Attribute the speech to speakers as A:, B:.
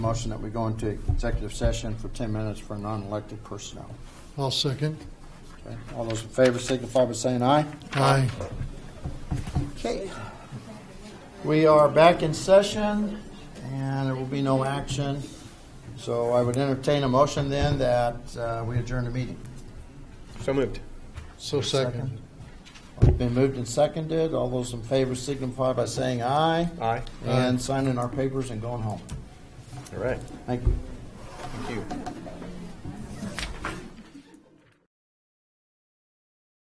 A: Motion that we go into executive session for 10 minutes for non-elected personnel.
B: I'll second.
A: Okay. All those in favor signify by saying aye.
B: Aye.
A: Okay. We are back in session, and there will be no action. So I would entertain a motion then that uh, we adjourn the meeting.
C: So moved.
B: So second.
A: It's been moved and seconded. All those in favor signify by saying aye
C: Aye.
A: and signing our papers and going home.
C: All right.
A: Thank you.
C: Thank you.